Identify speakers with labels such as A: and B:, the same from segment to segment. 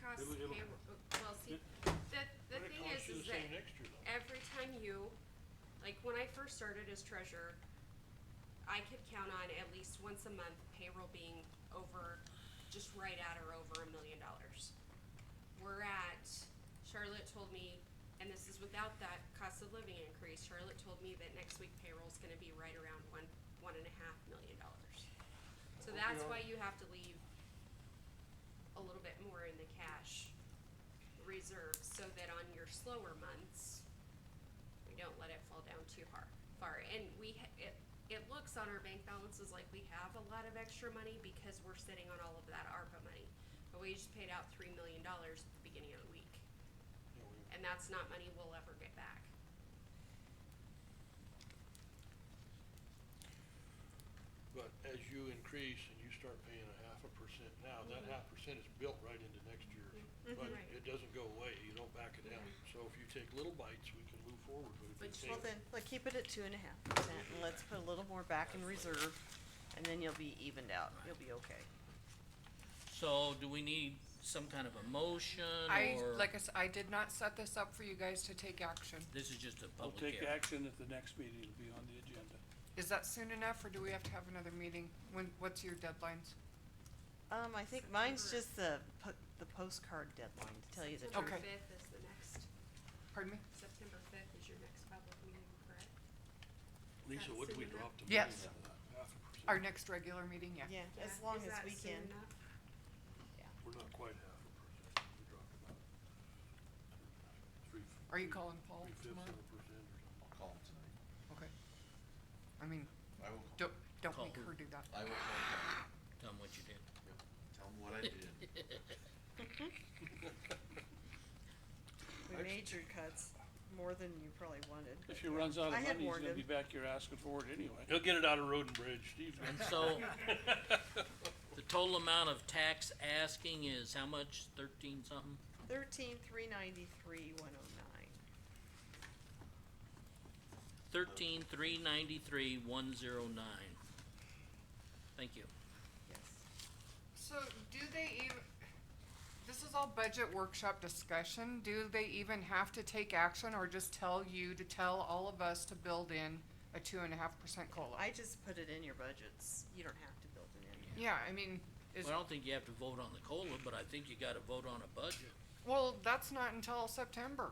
A: costs
B: It'll- it'll-
A: payroll, well, see,
B: it-
A: the, the
B: But it
A: thing
B: costs
A: is,
B: you
A: is
B: the
A: that
B: same next year though.
A: every time you, like, when I first started as treasurer, I could count on at least once a month payroll being over, just right at or over a million dollars. We're at, Charlotte told me, and this is without that cost of living increase, Charlotte told me that next week payroll's gonna be right around one, one and a half million dollars. So
B: Well, we
A: that's
B: are-
A: why you have to leave a little bit more in the cash reserve so that on your slower months, we don't let it fall down too hard, far. And we, ha- it, it looks on our bank balances like we have a lot of extra money because we're sitting on all of that ARPA money. But we just paid out three million dollars at the beginning of the week,
B: Yeah, we-
A: and that's not money we'll ever get back.
B: But as you increase and you start paying a half a percent now, that half percent is built right into next year's
A: Mhm.
B: budget.
A: Mm-hmm. Right.
B: It doesn't go away, you don't back it down. So if you take little bites, we can move forward, but if you
A: But
B: take.
C: Well, then, let's keep it at two and a half percent, and let's put a little more back in reserve, and then you'll be evened out, you'll be okay.
D: So do we need some kind of a motion
E: I,
D: or
E: like I said, I did not set this up for you guys to take action.
D: this is just a
F: We'll
D: public
F: take
D: hearing?
F: action at the next meeting, it'll be on the agenda.
E: Is that soon enough, or do we have to have another meeting? When, what's your deadlines?
C: Um, I think mine's just the po- the postcard deadline, to tell you the truth.
A: September
E: Okay.
A: fifth is the next,
E: Pardon me?
A: September fifth is your next public meeting, correct?
B: Lisa, would we
A: That's
B: drop the million
E: enough. Yes.
B: on that half a percent?
E: Our next regular meeting, yeah.
C: Yeah, as
A: Yeah.
C: long
A: Is
C: as
A: that
C: we
A: soon
C: can.
A: enough?
B: We're not quite half a percent, we dropped about. three-
E: Are you
B: three-
E: calling Paul
B: three-fifths
E: tomorrow?
B: of a percent or something.
G: I'll call him tonight.
E: Okay. I mean,
G: I will call.
E: don't, don't
D: Call
E: make
D: who?
E: her do that.
G: I will call him.
D: Tell 'em what you did.
G: Tell him what I did.
C: We major cuts, more than you probably wanted.
F: If he runs out of
C: I had
F: money, he's
C: warned
F: gonna
C: him.
F: be back here asking for it anyway.
B: He'll get it out of Road and Bridge, Steve's.
D: And so the total amount of tax asking is how much? Thirteen something?
C: Thirteen, three ninety-three, one oh nine.
D: Thirteen, three ninety-three, one zero nine. Thank you.
C: Yes.
E: So do they even, this is all budget workshop discussion, do they even have to take action or just tell you to tell all of us to build in a two and a half percent COLA?
C: I just put it in your budgets. You don't have to build it in.
E: Yeah, I mean, is,
D: Well, I don't think you have to vote on the COLA, but I think you gotta vote on a budget.
E: well, that's not until September.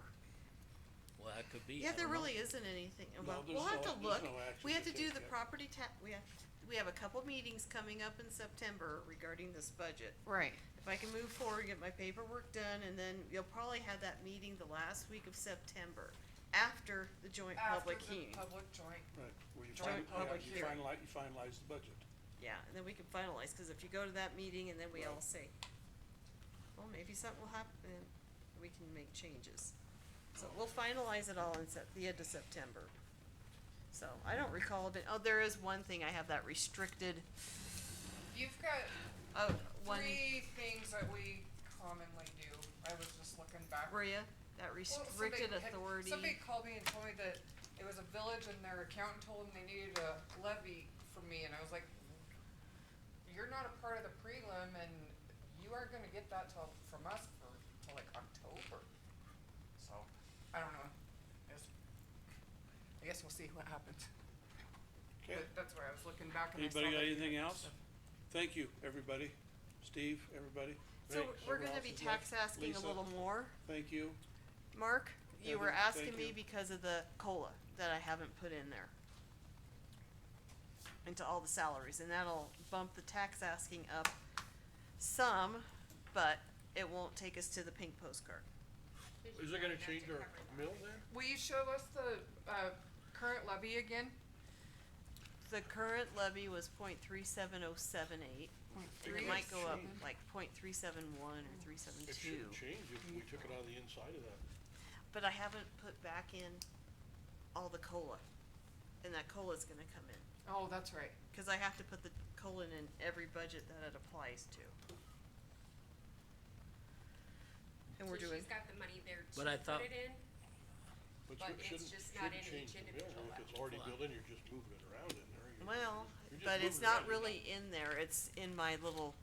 D: Well, that could be, I
C: Yeah, there
D: don't know.
C: really isn't anything.
F: No,
C: Well,
F: there's
C: we'll have
F: no-
C: to
F: there's
C: look.
F: no action
C: We have
F: to
C: to do
F: take
C: the
F: yet.
C: property tax, we have, we have a couple meetings coming up in September regarding this budget.
E: Right.
C: If I can move forward, get my paperwork done, and then you'll probably have that meeting the last week of September, after the joint public hearing.
E: public joint.
F: Right, where you
E: Joint
F: fin- yeah,
C: public
F: you
C: hearing.
F: finalize, you finalize the budget.
C: Yeah, and then we can finalize, cause if you go to that meeting and then we
F: Right.
C: all say, well, maybe something will happen, and we can make changes. So we'll finalize it all in Sep- the end of September. So I don't recall, the- oh, there is one thing, I have that restricted,
E: You've got
C: oh, one,
E: three things that we commonly do. I was just looking back.
C: Maria, that
E: Well, somebody
C: restricted
E: had-
C: authority.
E: Somebody called me and told me that it was a village and their accountant told them they needed a levy from me and I was like, you're not a part of the prelim and you aren't gonna get that till, from us for, till like October. So, I don't know. I guess- I guess we'll see what happens.
F: Okay.
E: But That's where I was looking back and I saw
F: Anybody got
E: that-
F: anything else? Thank you, everybody. Steve, everybody.
C: So
F: Thanks.
C: we're
F: Everyone
C: gonna
F: else
C: be
F: is left.
C: tax asking a
F: Lisa,
C: little more.
F: Thank you.
C: Mark, you were
F: Kevin,
C: asking
F: thank
C: me
F: you.
C: because of the COLA that I haven't put in there. Into all the salaries, and that'll bump the tax asking up some, but it won't take us to the pink postcard.
B: Is it gonna change our mill there?
E: Will you show us the, uh, current levy again?
C: The current levy was point three seven oh seven eight, and it might go up like point three seven one or three seven
B: It shouldn't
C: two,
B: change if we took it out of the inside of that.
C: but I haven't put back in all the COLA. And that COLA's gonna come in,
E: Oh, that's right.
C: cause I have to put the COLA in every budget that it applies to. And we're
A: So
C: doing.
A: She's got the money there to
D: But I thought-
A: put it in.
B: But
A: But
B: shouldn't,
A: it's
B: shouldn't
A: just not
B: shouldn't
A: in
B: change
A: each
B: the bill,
A: individual
B: if it's
A: app.
B: already
D: Well,
B: built in, you're just moving it around in there. You're-
C: Well,
B: you're just
C: but it's
B: moving around
C: not
B: your
C: really in there, it's in my little